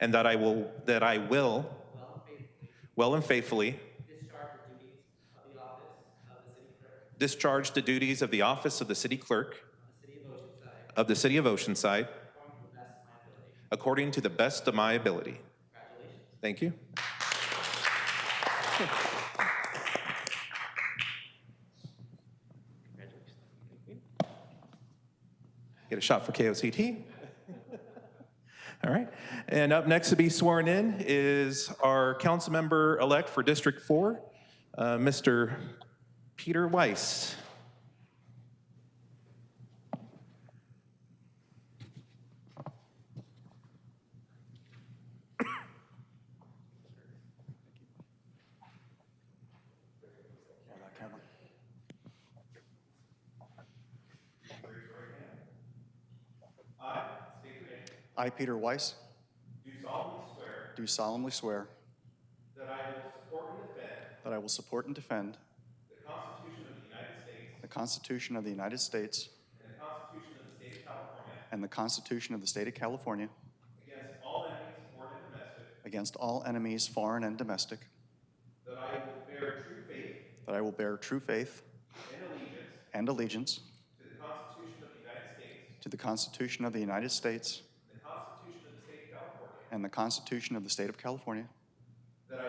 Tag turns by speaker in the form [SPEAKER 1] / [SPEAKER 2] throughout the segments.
[SPEAKER 1] and that I will, that I will
[SPEAKER 2] well and faithfully
[SPEAKER 1] well and faithfully
[SPEAKER 2] discharge the duties of the office of the city clerk
[SPEAKER 1] discharge the duties of the office of the city clerk
[SPEAKER 2] of the city of Oceanside
[SPEAKER 1] of the city of Oceanside
[SPEAKER 2] according to the best of my ability.
[SPEAKER 1] according to the best of my ability.
[SPEAKER 2] Congratulations.
[SPEAKER 1] Thank you. Get a shot for KOCT. All right. And up next to be sworn in is our council member elect for District 4, uh, Mr. Peter Weiss.
[SPEAKER 3] I, Peter Weiss. Do solemnly swear. That I will support and defend. The Constitution of the United States. And the Constitution of the State of California. Against all enemies, foreign and domestic. That I will bear true faith. And allegiance. To the Constitution of the United States. And the Constitution of the State of California. That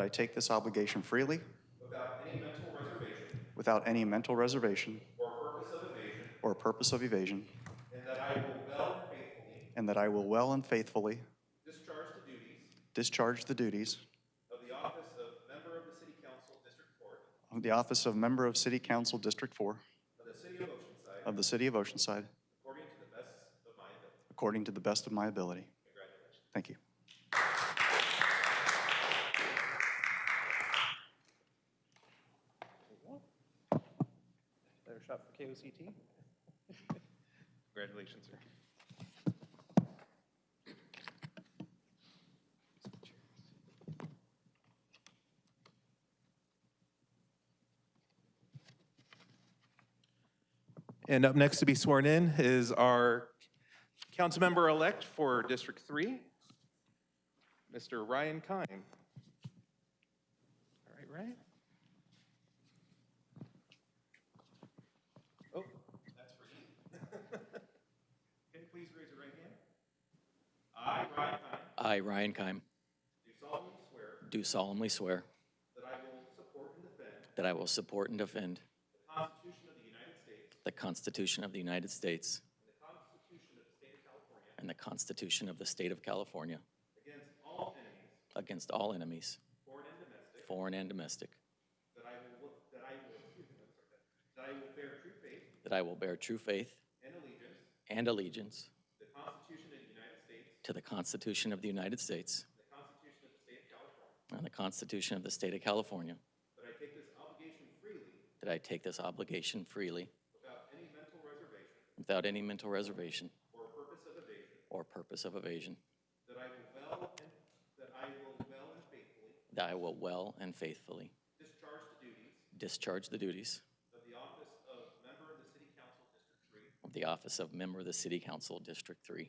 [SPEAKER 3] I take this obligation freely. Without any mental reservation. Or purpose of evasion. And that I will well and faithfully. Discharge the duties. Of the office of member of City Council District 4. Of the City of Oceanside. According to the best of my ability. Thank you.
[SPEAKER 1] Better shot for KOCT. Congratulations, sir. And up next to be sworn in is our councilmember-elect for District 3, Mr. Ryan Kine. All right, Ryan? Oh, that's for you. Okay, please raise your right hand. I, Ryan Kine,
[SPEAKER 4] I, Ryan Keim,
[SPEAKER 1] do solemnly swear
[SPEAKER 4] do solemnly swear
[SPEAKER 1] that I will support and defend
[SPEAKER 4] that I will support and defend
[SPEAKER 1] the Constitution of the United States
[SPEAKER 4] the Constitution of the United States
[SPEAKER 1] and the Constitution of the State of California
[SPEAKER 4] and the Constitution of the State of California
[SPEAKER 1] against all enemies,
[SPEAKER 4] against all enemies,
[SPEAKER 1] foreign and domestic,
[SPEAKER 4] foreign and domestic,
[SPEAKER 1] that I will, that I will, that I will bear true faith
[SPEAKER 4] that I will bear true faith
[SPEAKER 1] and allegiance
[SPEAKER 4] and allegiance
[SPEAKER 1] to the Constitution of the United States
[SPEAKER 4] to the Constitution of the United States
[SPEAKER 1] and the Constitution of the State of California,
[SPEAKER 4] and the Constitution of the State of California,
[SPEAKER 1] that I take this obligation freely
[SPEAKER 4] that I take this obligation freely
[SPEAKER 1] without any mental reservation
[SPEAKER 4] without any mental reservation
[SPEAKER 1] or purpose of evasion,
[SPEAKER 4] or purpose of evasion,
[SPEAKER 1] that I will well and, that I will well and faithfully
[SPEAKER 4] that I will well and faithfully
[SPEAKER 1] discharge the duties
[SPEAKER 4] discharge the duties
[SPEAKER 1] of the office of member of the City Council District Three
[SPEAKER 4] of the office of member of the City Council, District 3
[SPEAKER 1] of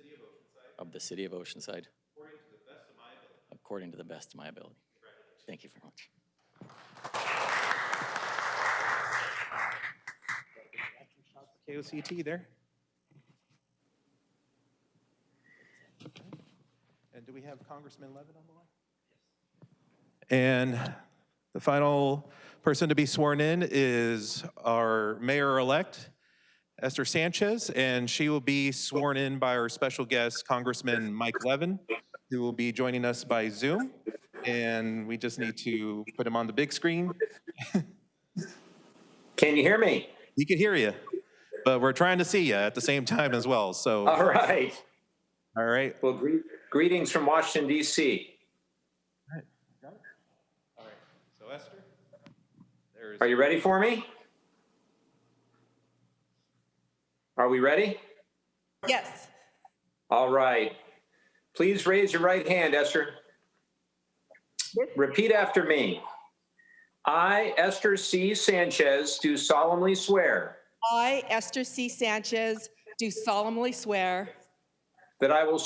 [SPEAKER 1] the City of Oceanside
[SPEAKER 4] of the City of Oceanside
[SPEAKER 1] according to the best of my ability.
[SPEAKER 4] according to the best of my ability. Thank you very much.
[SPEAKER 1] KOCT there. And do we have Congressman Levin on the line? And the final person to be sworn in is our mayor-elect, Esther Sanchez, and she will be sworn in by our special guest, Congressman Mike Levin, who will be joining us by Zoom. And we just need to put him on the big screen.
[SPEAKER 5] Can you hear me?
[SPEAKER 1] He can hear you, but we're trying to see you at the same time as well. So,
[SPEAKER 5] All right.
[SPEAKER 1] all right.
[SPEAKER 5] Well, gre- greetings from Washington, D.C.
[SPEAKER 1] All right. So Esther, there is.
[SPEAKER 5] Are you ready for me? Are we ready?
[SPEAKER 6] Yes.
[SPEAKER 5] All right. Please raise your right hand, Esther. Repeat after me. I, Esther C. Sanchez, do solemnly swear
[SPEAKER 6] I, Esther C. Sanchez, do solemnly swear
[SPEAKER 5] that I will